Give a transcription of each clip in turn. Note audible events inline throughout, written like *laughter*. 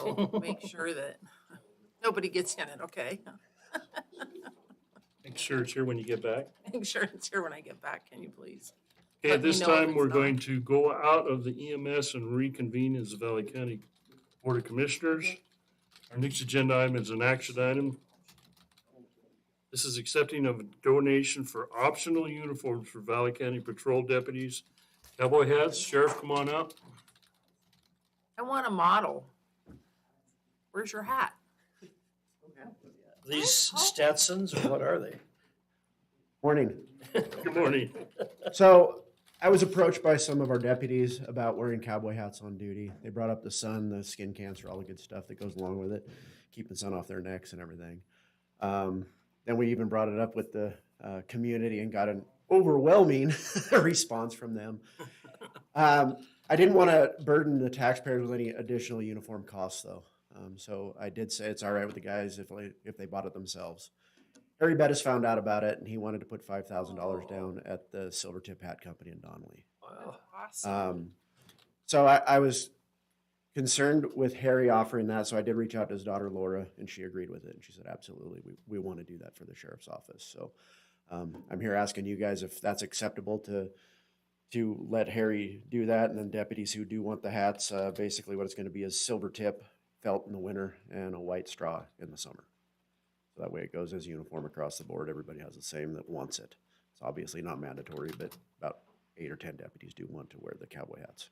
to make sure that nobody gets in it, okay? *laughs* Make sure it's here when you get back. Make sure it's here when I get back, can you please? Okay, Let at me this know if time, it's we're not. going to go out of the EMS and reconvene as the Valley County Board of Commissioners. Our next agenda item is an action item. This is accepting of a donation for optional uniforms for Valley County Patrol deputies. Cowboy hats, Sheriff, come on up. I want a model. Where's your hat? These Stetsons, or what are they? Morning. Good morning. So I was approached by some of our deputies about wearing cowboy hats on duty. They brought up the sun, the skin cancer, all the good stuff that goes along with it, keeping the sun off their necks and everything. Um, then we even brought it up with the uh, community and got an overwhelming *laughs* response from them. Um, I didn't want to burden the taxpayers with any additional uniform costs, though. Um, so I did say it's all right with the guys if they, if they bought it themselves. Harry Bettis found out about it, and he wanted to put five thousand dollars down at the Silver Tip Hat Company in Donnelly. Wow. Awesome. Um, so I, I was concerned with Harry offering that, so I did reach out to his daughter Laura, and she agreed with it. And she said, "Absolutely, we, we want to do that for the sheriff's office." So um, I'm here asking you guys if that's acceptable to to let Harry do that, and then deputies who do want the hats, uh, basically what it's going to be is silver tip felt in the winter and a white straw in the summer. So that way it goes as uniform across the board. Everybody has the same that wants it. It's obviously not mandatory, but about eight or ten deputies do want to wear the cowboy hats.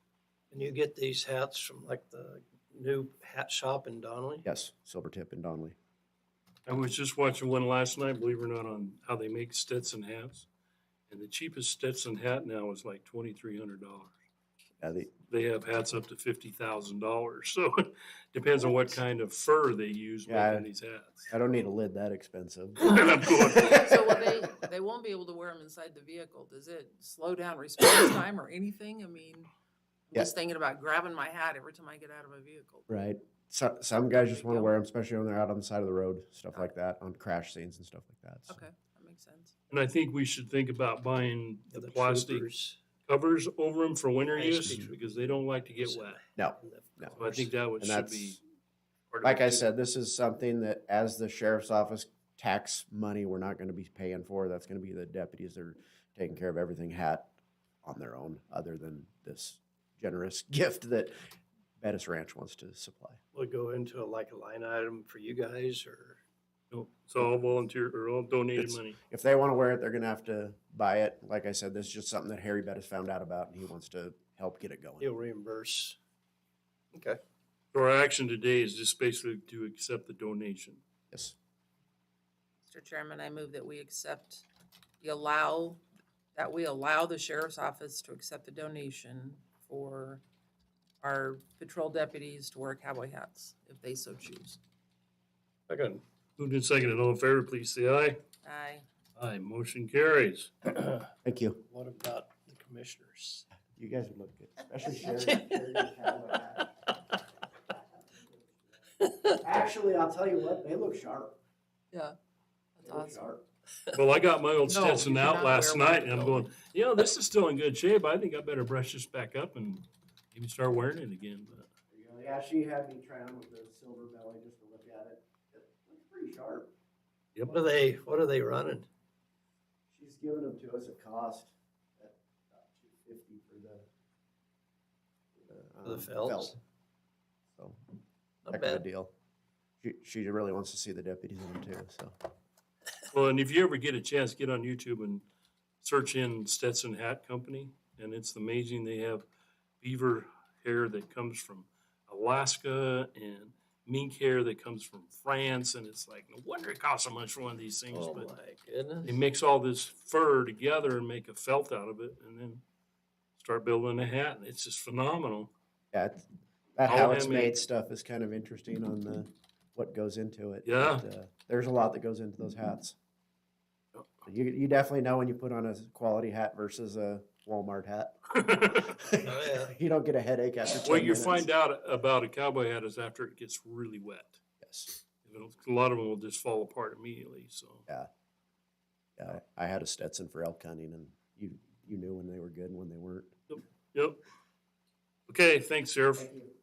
And you get these hats from like the new hat shop in Donnelly? Yes, silver tip and Donnelly. I was just watching one last night, believe it or not, on how they make Stetson hats. And the cheapest Stetson hat now is like twenty-three hundred dollars. Uh, the, they have hats up to fifty thousand dollars. So *laughs* it depends on what kind of fur they use Yeah. making these hats. I don't need a lid that expensive. And I'm *laughs* going, *laughs* So will they, they won't be able to wear them inside the vehicle. Does it slow down response *coughs* time or anything? I mean, I'm Yeah. just thinking about grabbing my hat every time I get out of a vehicle. Right. So, some There guys just you want to go. wear them, especially when they're out on the side of the road, stuff like that, on crash scenes and stuff like that. so. Okay, that makes sense. and I think we should think about buying Yeah, the plastic troopers covers over them for winter Ice use cream. because they don't like to get wet. No, and the no. So I cars. think that would And should be. that's, part of like it, I too. said, this is something that as the sheriff's office tax money, we're not going to be paying for. That's going to be the deputies that are taking care of everything hat on their own, other than this generous *laughs* gift that Bettis Ranch wants to supply. Would go into a- like a line item for you guys or? No, It's all volunteer or all donated It's- money. If they want to wear it, they're going to have to buy it. Like I said, this is just something that Harry Bettis found out about, and he wants to help get it going. He'll reimburse. Okay. So Our action today is just basically to accept the donation. Yes. Mr. Chairman, I move that we accept, the allow, that we allow the sheriff's office to accept the donation for our patrol deputies to wear cowboy hats if they so choose. I got Moved and seconded. All in favor, please say aye. Aye. Aye. Motion carries. Thank you. What about the commissioners? You guys would look good, *laughs* especially Actually, I'll tell you what, they look sharp. Yeah. That's awesome. sharp. Well, I got my old No, Stetson you out cannot last wear one night and I'm though. going, you know, this is still in good shape. I think I better brush this back up and maybe start wearing it again. But Yeah, she had me try on with the silver belly just to look at it. It looks pretty sharp. What are they, what are they running? She's giving them to us at cost at about two fifty for the. For the um, felts? So, Not heck of a bad. deal. She, she really wants to see the deputies in them too, so. Well, and if you ever get a chance, get on YouTube and search in Stetson Hat Company. And it's amazing. They have beaver hair that comes from Alaska and mink hair that comes from France. And it's like, no wonder it costs so much for one of these things. Oh but my goodness. they mix all this fur together and make a felt out of it and then start building a hat. And it's just phenomenal. *laughs* Yeah, it's- that All how it's handmade. made stuff is kind of interesting on the, what goes into it. Yeah. Oh. but, uh, There's a lot that goes into those hats. You, you definitely know when you put on a quality hat versus a Walmart hat. *laughs* Oh, yeah. You don't get a headache after ten What you minutes. find out about a cowboy hat is after it gets really wet. Yes. It'll- A lot of them will just fall apart immediately, so. Yeah, I had a Stetson for elk hunting and you, you knew when they were good and when they weren't. Yep. Okay, thanks, Sheriff. you.